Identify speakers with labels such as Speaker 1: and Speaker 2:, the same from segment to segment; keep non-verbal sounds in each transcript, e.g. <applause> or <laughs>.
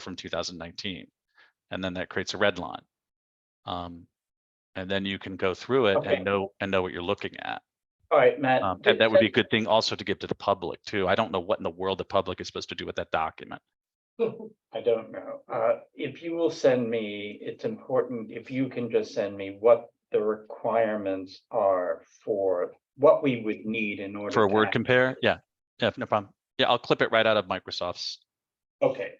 Speaker 1: from 2019. And then that creates a red line. Um, and then you can go through it
Speaker 2: Okay. Uh,
Speaker 1: and know, and know what you're looking at.
Speaker 2: All right, Matt.
Speaker 1: Um, and that would be a good thing also to give to the public too. I don't know what in the world the public is supposed to do with that document.
Speaker 2: <laughs> I don't know. Uh, if you will send me, it's important if you can just send me what the requirements are for what we would need in order.
Speaker 1: For a
Speaker 2: to
Speaker 1: word
Speaker 2: act-
Speaker 1: compare, yeah, yeah, no problem. Yeah, I'll clip it right out of Microsoft's.
Speaker 2: Okay,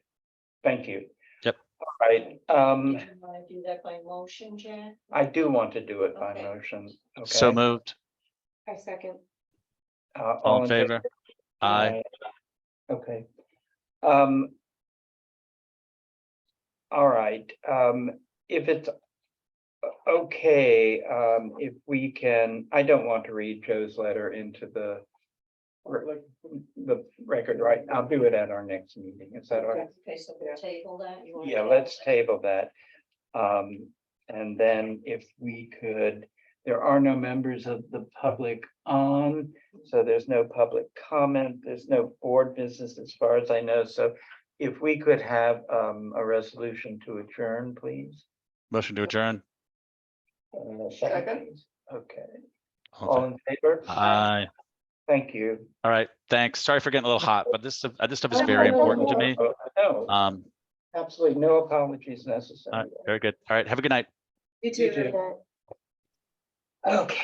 Speaker 2: thank you.
Speaker 1: Yep.
Speaker 2: All right, um,
Speaker 3: Want to do that by motion, Jan?
Speaker 2: I do want to do it by
Speaker 3: Okay.
Speaker 2: motion.
Speaker 1: So
Speaker 2: okay?
Speaker 1: moved,
Speaker 3: I second.
Speaker 2: Uh,
Speaker 1: all in favor? Aye,
Speaker 2: Aye. Okay. Um. All right, um, if it's. o- Okay, um, if we can, I don't want to read Joe's letter into the. re- The record, right? I'll do it at our next meeting. Is that all right?
Speaker 3: Okay, so we'll table that. You wanna
Speaker 2: Yeah,
Speaker 3: table
Speaker 2: let's
Speaker 3: that?
Speaker 2: table that. Um, and then if we could, there are no members of the public on, so there's no public comment, there's no board business as far as I know, so if we could have um a resolution to adjourn, please.
Speaker 1: motion to adjourn.
Speaker 2: Uh, Second. please. Okay,
Speaker 1: All in
Speaker 2: all
Speaker 1: favor?
Speaker 2: in favor?
Speaker 1: Aye,
Speaker 2: Thank you.
Speaker 1: all right, thanks. Sorry for getting a little hot, but this, stuff- uh, this stuff is very important to me.
Speaker 2: No,
Speaker 1: Um,
Speaker 2: Oh, absolutely, no apologies
Speaker 1: all
Speaker 2: necessary.
Speaker 1: right, very good. All right, have a good night.
Speaker 3: You
Speaker 2: You
Speaker 3: too.
Speaker 1: uh,
Speaker 2: too. Okay.